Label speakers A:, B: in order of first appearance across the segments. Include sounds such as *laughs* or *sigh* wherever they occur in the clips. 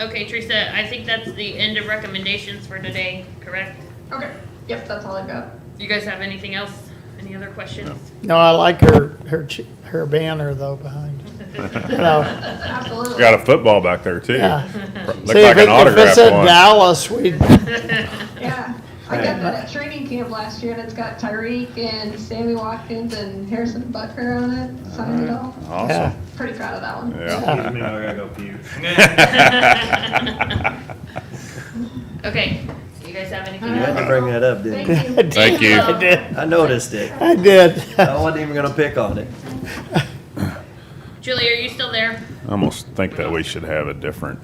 A: Okay, Teresa, I think that's the end of recommendations for today, correct?
B: Okay, yep, that's all I've got.
A: Do you guys have anything else? Any other questions?
C: No, I like her, her, ch- her banner though behind,
D: *laughs*
C: you know,
B: Absolutely.
D: Got a football back there too.
C: yeah.
D: Looked
C: See, if
D: like
C: it-
D: an
C: if it's
D: autograph
C: in
D: one.
C: Dallas, we'd,
B: Yeah, I got that at training camp last year, and it's got Tyreek and Sammy Watkins and Harrison Butker on it, signed it all.
C: yeah. *laughs*
D: Awesome.
B: Pretty proud of that one.
D: Yeah.
E: *laughs* Excuse me, Oh, I gotta go
A: *laughs*
E: pee.
C: *laughs*
A: Okay, you guys have anything
B: Uh,
E: You had
A: else? Um,
E: to bring that up, didn't you?
B: Thank you.
D: Thank you.
C: I did,
E: I noticed it.
C: I did.
D: *laughs*
E: I wasn't even gonna pick on it.
A: Julie, are you still there?
D: *laughs* I almost think that we should have a different,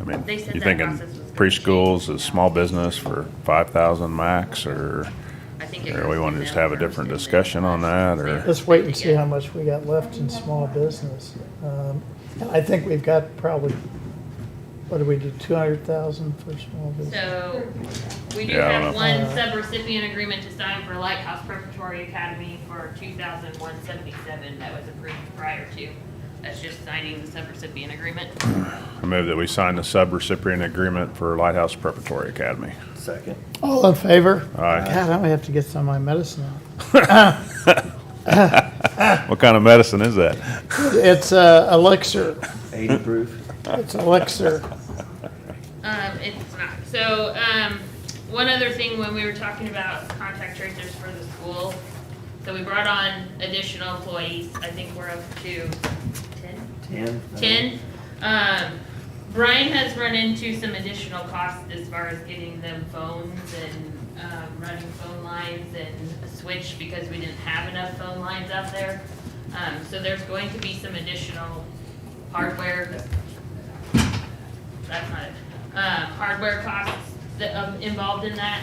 D: I mean,
A: They said
D: you
A: that
D: thinking
A: process was gonna
D: preschools is small business for five thousand max or,
A: I think. it
D: or we
A: was
D: wanna
A: in
D: just
A: there.
D: have a different discussion on that or?
C: Let's wait and see how much we got left in small business. Um, I think we've got probably, what do we do, two hundred thousand for small business?
A: So, we do
D: Yeah, I don't
A: have
D: know.
A: one
C: Uh,
A: sub-recipient agreement to sign for Lighthouse Preparatory Academy for two thousand one seventy-seven that was approved prior to. That's just signing the sub-recipient agreement.
D: I move that we sign the sub-recipient agreement for Lighthouse Preparatory Academy.
E: Second.
C: All in favor?
D: Aye.
C: God, I'm gonna have to get some of my medicine out.
D: What kind of medicine is that?
C: It's uh, elixir,
D: Hmm.
E: Eighty proof.
C: it's elixir.
A: Um, it's not. So, um, one other thing when we were talking about contact tracers for the school, so we brought on additional employees. I think we're up to ten.
E: Ten.
A: 10. Um, Brian has run into some additional costs as far as getting them phones and um, running phone lines and a switch because we didn't have enough phone lines out there. Um, so there's going to be some additional hardware. That's not it. Um, hardware costs that, um, involved in that.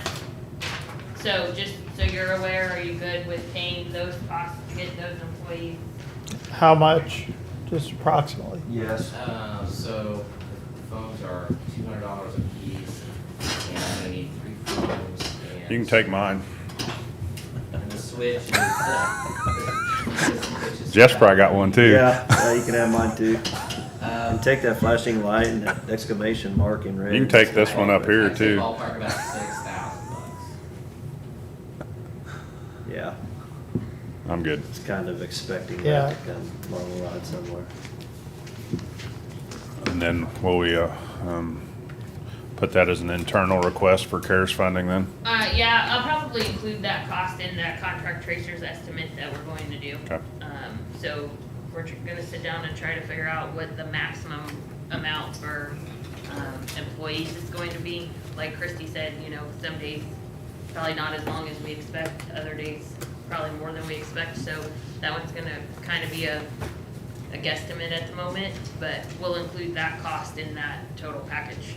A: So just so you're aware, are you good with paying those costs to get those employees?
C: How much? Just approximately.
E: Yes.
F: Uh, so phones are two hundred dollars a piece, and I'm gonna need three phones. And
D: You can take mine.
F: And the switch is. the switch is-
D: Jeff's probably got one too.
E: Yeah, yeah, you can have mine too.
F: Um,
E: And take that flashing light and that exclamation mark in red.
D: You can take this one up here
F: I'd say
D: too.
F: Ballpark about six thousand bucks.
E: Yeah,
D: I'm good.
E: it's kind of expecting
C: Yeah.
E: that to come along the line somewhere.
D: And then will we, uh, um, put that as an internal request for CARES funding then?
A: Uh, yeah, I'll probably include that cost in that contract tracers estimate that we're going to do.
D: Okay.
A: Um, so we're tr- gonna sit down and try to figure out what the maximum amount for, um, employees is going to be. Like Christy said, you know, some days probably not as long as we expect, other days probably more than we expect, so that one's gonna kinda be a, a guesstimate at the moment, but we'll include that cost in that total package.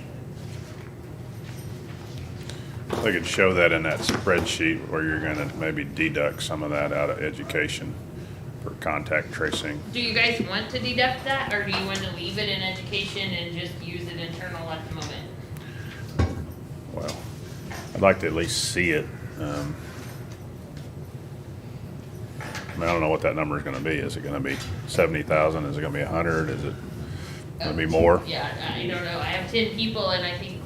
D: They could show that in that spreadsheet where you're gonna maybe deduct some of that out of education for contact tracing.
A: Do you guys want to deduct that, or do you want to leave it in education and just use it internal at the moment?
D: Well, I'd like to at least see it. um, I mean, I don't know what that number is gonna be. Is it gonna be seventy thousand? Is it gonna be a hundred? Is it gonna be more?
A: Yeah, I I don't know, I have ten people and I think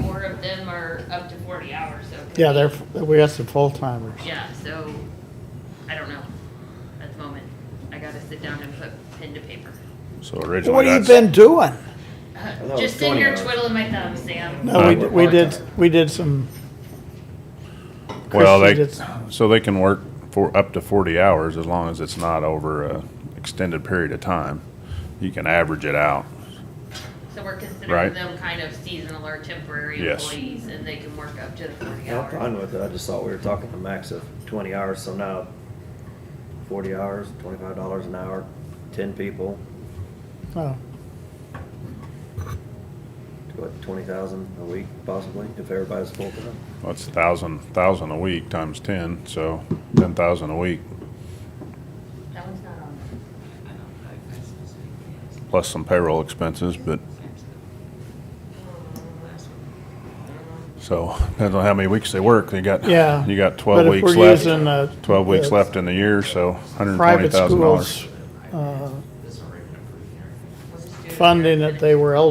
A: four of them are up to forty hours, so.
C: Yeah, they're, we got some full timers.
A: Yeah, so, I don't know, at the moment, I gotta sit down and put pen to paper.
D: So originally.
C: What have you
D: that's-
C: been doing?
E: it
A: *laughs*
E: was
A: Just sitting
E: 20
A: here
E: hours.
A: twiddling my thumbs, Sam.
C: No, we,
D: Huh?
C: d- we did, we did some.
D: Well,
C: Christie
D: they,
C: did-
D: so they can work for up to forty hours as long as it's not over a extended period of time. You can average it out.
A: So we're
D: Right.
A: considering them kind of seasonal or temporary
D: Yes.
A: employees, and they can work up to the forty
E: I'm
A: hours.
E: fine with it. I just thought we were talking a max of twenty hours, so now forty hours, twenty-five dollars an hour, ten people,
C: oh,
E: what, twenty thousand a week possibly, if everybody's full time?
D: That's thousand, thousand a week times ten, so ten thousand a week,
A: That one's not on.
D: plus some payroll expenses, but, so, *laughs* depends on how many weeks they work, they got,
C: Yeah.
D: you got
C: But
D: twelve
C: if
D: weeks
C: we're using, uh,
D: left, twelve weeks
C: the
D: left in the year, so hundred and twenty
C: Private
D: thousand dollars.
C: schools, uh,
F: This is already been approved here.
A: We'll just do it here.
C: funding that they were eligible